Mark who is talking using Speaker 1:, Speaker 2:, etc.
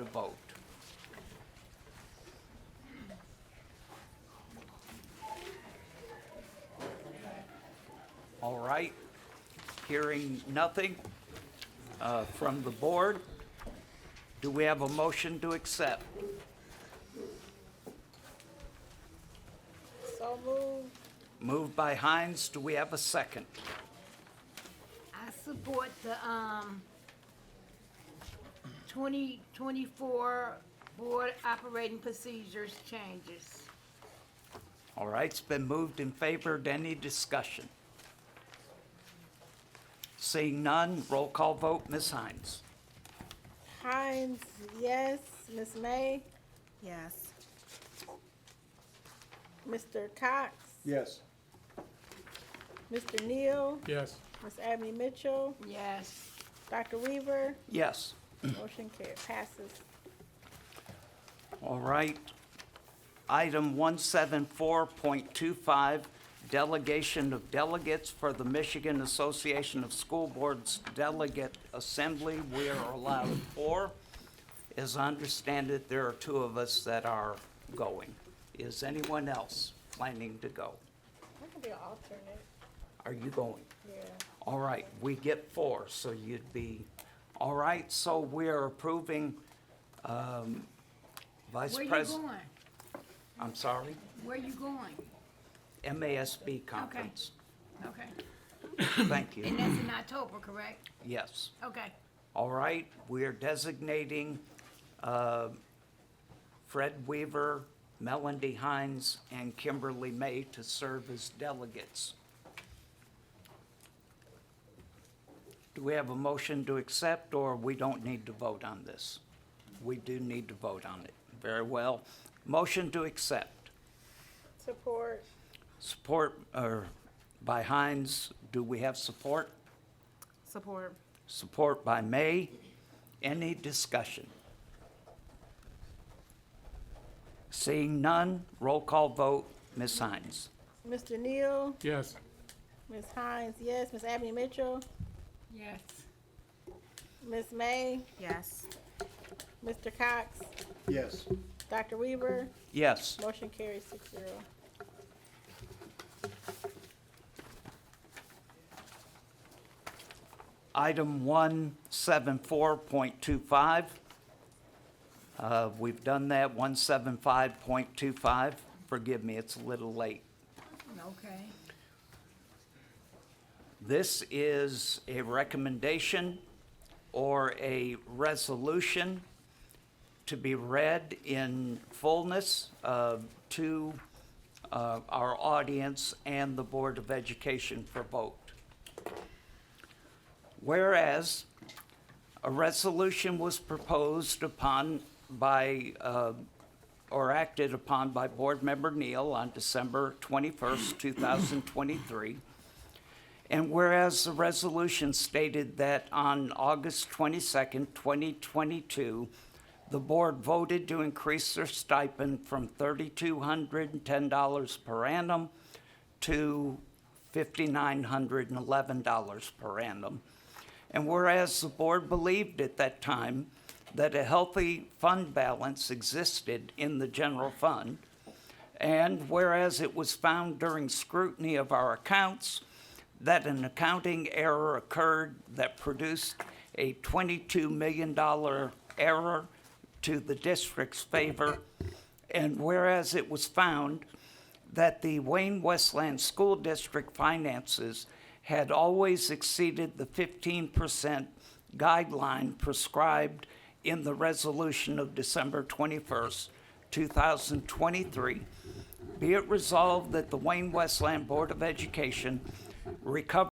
Speaker 1: vote. All right, hearing nothing uh, from the board, do we have a motion to accept?
Speaker 2: So moved.
Speaker 1: Moved by Hines, do we have a second?
Speaker 2: I support the, um, twenty twenty-four board operating procedures changes.
Speaker 1: All right, it's been moved and favored. Any discussion? Seeing none, roll call vote, Ms. Hines.
Speaker 3: Hines, yes. Ms. May,
Speaker 4: Yes.
Speaker 3: Mr. Cox,
Speaker 5: Yes.
Speaker 3: Mr. Neal,
Speaker 5: Yes.
Speaker 3: Ms. Abney Mitchell,
Speaker 2: Yes.
Speaker 3: Dr. Weaver,
Speaker 1: Yes,
Speaker 3: motion carried, passes.
Speaker 1: all right. Item 174.25, delegation of delegates for the Michigan Association of School Boards Delegate Assembly. We are allowed four. As I understand it, there are two of us that are going. Is anyone else planning to go?
Speaker 3: I can be an alternate,
Speaker 1: Are you going?
Speaker 3: yeah.
Speaker 1: All right, we get four, so you'd be, all right, so we're approving um, Vice
Speaker 2: Where you
Speaker 1: President.
Speaker 2: going?
Speaker 1: I'm sorry,
Speaker 2: Where you going?
Speaker 1: MASB conference.
Speaker 2: Okay.
Speaker 1: Thank
Speaker 2: And
Speaker 1: you,
Speaker 2: that's in October, correct?
Speaker 1: yes.
Speaker 2: Okay.
Speaker 1: All right, we are designating uh, Fred Weaver, Melody Hines, and Kimberly May to serve as delegates. Do we have a motion to accept, or we don't need to vote on this? We do need to vote on it. Very well. Motion to accept.
Speaker 3: Support,
Speaker 1: Support or by Hines. Do we have support?
Speaker 4: Support.
Speaker 1: Support by May. Any discussion? Seeing none, roll call vote, Ms. Hines.
Speaker 3: Mr. Neal,
Speaker 5: Yes.
Speaker 3: Ms. Hines, yes. Ms. Abney Mitchell,
Speaker 2: Yes.
Speaker 3: Ms. May,
Speaker 4: Yes.
Speaker 3: Mr. Cox,
Speaker 5: Yes.
Speaker 3: Dr. Weaver,
Speaker 1: Yes,
Speaker 3: motion carries six zero.
Speaker 1: item 174.25. Uh, We've done that, 175.25. Forgive me, it's a little late.
Speaker 2: Okay.
Speaker 1: This is a recommendation or a resolution to be read in fullness uh, to uh, our audience and the Board of Education for vote. Whereas a resolution was proposed upon by, uh, or acted upon by Board Member Neal on December 21st, 2023, and whereas the resolution stated that on August 22nd, 2022, the board voted to increase their stipend from $3,210 per annum to $5,911 per annum. And whereas the board believed at that time that a healthy fund balance existed in the general fund, and whereas it was found during scrutiny of our accounts that an accounting error occurred that produced a $22 million error to the district's favor, and whereas it was found that the Wayne Westland School District finances had always exceeded the 15% guideline prescribed in the resolution of December 21st, 2023. Be it resolved that the Wayne Westland Board of Education recover